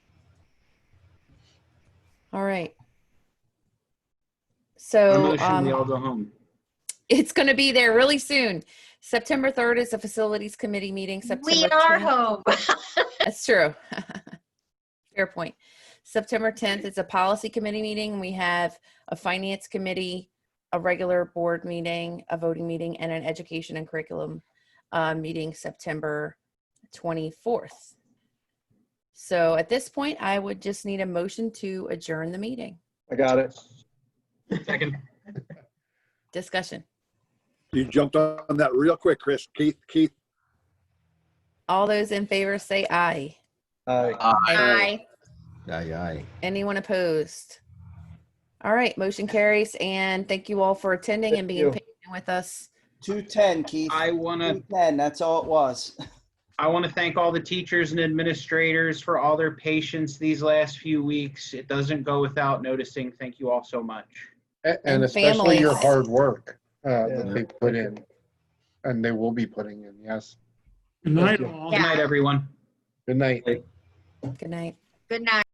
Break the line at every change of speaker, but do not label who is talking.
All right.
I
So
motion we
um,
all go home.
it's going to be there really soon. September 3rd is the facilities committee meeting.
We
September
are
10th
home.
That's true. Fair point. September 10th is a policy committee meeting. We have a finance committee, a regular board meeting, a voting meeting, and an education and curriculum uh, meeting September 24th. So at this point, I would just need a motion to adjourn the meeting.
I got it.
Second.
Discussion.
You jumped on that real quick, Chris. Keith, Keith,
All those in favor say aye.
Aye.
Aye.
Aye, aye.
Anyone opposed? All right, motion carries and thank you all for attending
Thank
and being
you.
patient with us.
210, Keith.
I want to
210, that's all it was.
I want to thank all the teachers and administrators for all their patience these last few weeks. It doesn't go without noticing. Thank you all so much.
A-
and
And especially your
families.
hard work uh,
Yeah.
that they put in, and they will be putting in, yes.
Good night,
you.
all.
Good night,
Yeah.
everyone.
Good night.
Good night.
Good night.